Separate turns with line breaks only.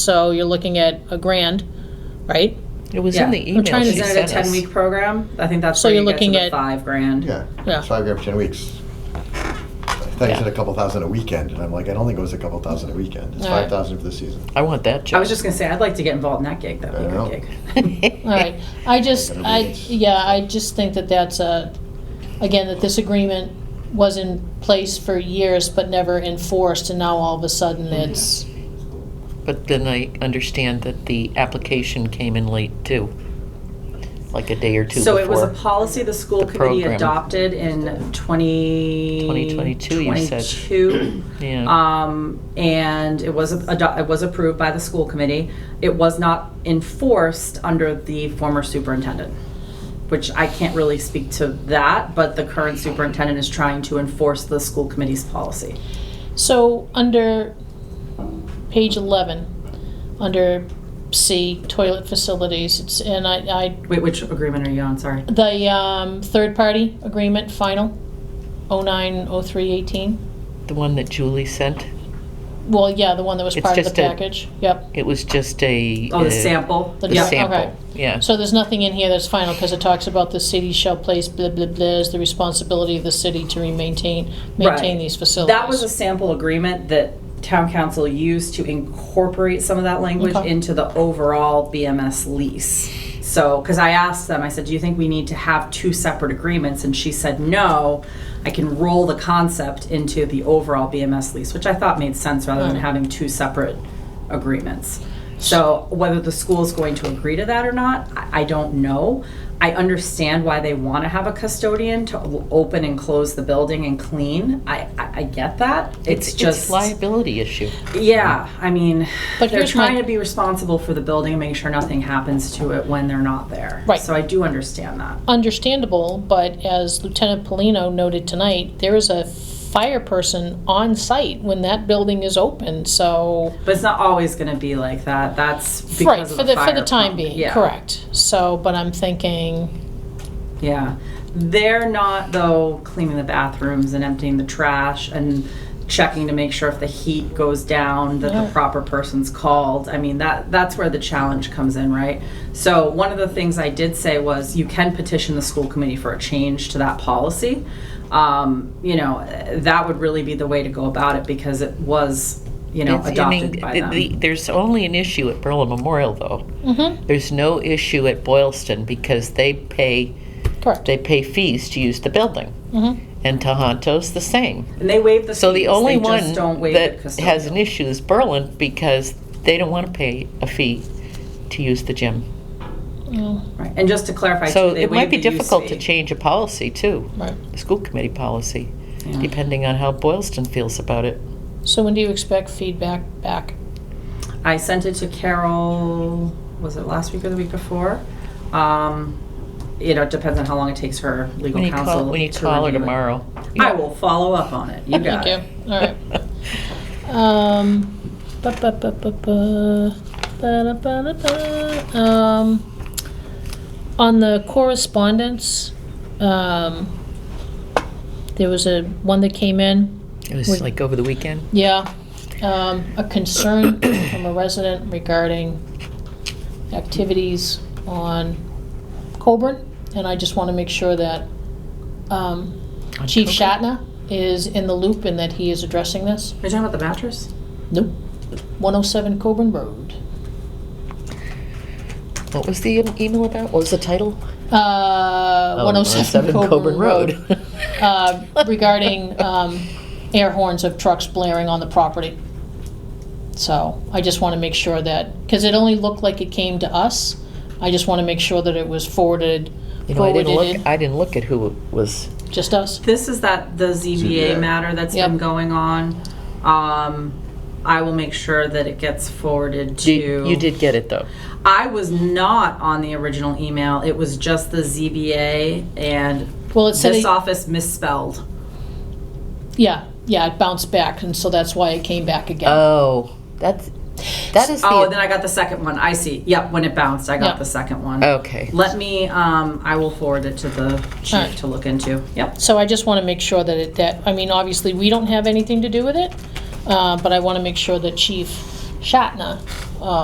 So you're looking at a grand, right?
It was in
Yeah.
the
I'm
email
trying
she
to-
Isn't it a
sent
ten
us.
week program? I think that's
So
where
you're
you get to
looking
the
at-
five grand.
Yeah,
Yeah.
it's five grand for ten weeks. Thanks
Yeah.
said a couple thousand a weekend, and I'm like, I don't think it was a couple thousand a weekend. It's
All right.
five thousand for the season.
I want that job.
I was just gonna say, I'd like to get involved in that gig, that'd be a
I know.
good gig.
Oh.
All right, I just,
That'll be
I,
nice.
yeah, I just think that that's a, again, that this agreement was in place for years but never enforced, and now all of a sudden
Mm-hmm.
it's,
But then I understand that the application came in late too, like a day or two
So it was a
before.
policy the school
the
committee
program.
adopted in twenty.
2022, you said. Mm.
22.
Yeah,
Um, and it was, ado- it was approved by the school committee. It was not enforced under the former superintendent, which I can't really speak to that, but the current superintendent is trying to enforce the school committee's policy.
so under page eleven, under C, toilet facilities, it's, and I, I,
Wait, which agreement are you on, sorry?
the, um, third-party agreement, final, oh nine, oh three, eighteen.
the one that Julie sent,
Well, yeah, the one that was
It's
part of the
just a-
package, yep.
it was just a.
Oh,
uh,
the sample?
The
The
Yeah,
Yep.
okay.
sample, yeah.
So there's nothing in here that's final, because it talks about the city shall place blah, blah, blah, is the responsibility of the city to maintain, maintain
Right.
these facilities.
That was a sample agreement that town council used to incorporate some of that language
Okay.
into the overall BMS lease. So, because I asked them, I said, do you think we need to have two separate agreements? And she said, no, I can roll the concept into the overall BMS lease, which I thought made sense rather than
Mm.
having two separate agreements. So whether the school is going to agree to that or not, I I don't know. I understand why they want to have a custodian to o- open and close the building and clean. I, I, I get that. It's just,
liability issue.
yeah, I mean,
But
they're
here's my-
trying to be responsible for the building and make sure nothing happens to it when they're not there.
Right.
So I do understand that.
Understandable, but as Lieutenant Polino noted tonight, there is a fire person on site when that building is open, so.
But it's not always going to be like that. That's because
Right,
of
for the, for
fire
the time
pump.
being,
Yeah.
correct. So, but I'm thinking,
Yeah. They're not, though, cleaning the bathrooms and emptying the trash and checking to make sure if the heat goes down that
Yeah.
the proper person's called. I mean, that that's where the challenge comes in, right? So, one of the things I did say was you can petition the school committee for a change to that policy. Um, you know, eh, that would really be the way to go about it because it was, you know,
It's- I
adopted
mean,
by
the-
them.
the- There's only an issue at Berlin Memorial though.
mm-hmm,
There's no issue at Boylston because they pay,
correct.
they pay fees to use the building.
Mhm.
And Tohonto's the same.
and they waive the
So the
fees,
only
they
one
just don't waive
that
the custodial.
has an issue is Berlin because they don't want to pay a fee to use the gym.
Yeah,
right. And just to clarify,
So
too, they
it might
waive
be
the use
difficult to
fee.
change a policy too,
Right.
the school committee policy,
Yeah.
depending on how Boylston feels about it.
So when do you expect feedback back?
I sent it to Carol, was it last week or the week before? Um, you know, it depends on how long it takes her legal
When you
counsel.
call, when you
to
call her
review it.
tomorrow.
I will follow up on it. You got it.
Thank you, all right. Um, ba- ba- ba- ba- ba- ba- da- ba- da- ba. Um, on the correspondence, um, there was a, one that came in,
It was like over the weekend.
yeah, um, a concern from a resident regarding activities on Coburn, and I just want to make sure that, um,
on
Chief
Coburn.
Shatna is in the loop and that he is addressing this.
Are you talking about the mattress?
Nope. 107 Coburn Road.
What was the um, email about? What was the title?
Uh,
Oh,
107 Coburn, Road.
Road.
uh, regarding um, air horns of trucks blaring on the property. So I just want to make sure that, because it only looked like it came to us. I just want to make sure that it was forwarded,
You know, I
forwarded
didn't
in,
look, I didn't look at who it was.
just us.
This is that, the ZBA
ZBA.
matter that's
Yep.
been going on. Um, I will make sure that it gets forwarded to.
You you did get it though.
I was not on the original email. It was just the ZBA and
Well, it said,
this
it-
office misspelled.
yeah, yeah, it bounced back, and so that's why it came back again.
Oh, that's, that is
Oh, then
the,
I got the second one. I see. Yep, when it bounced, I
Yeah.
got the second one.
okay.
Let me, um, I will forward it to the
Alright.
chief to look into. Yep.
So I just want to make sure that it, that, I mean, obviously, we don't have anything to do with it, uh, but I want to make sure that Chief Shatna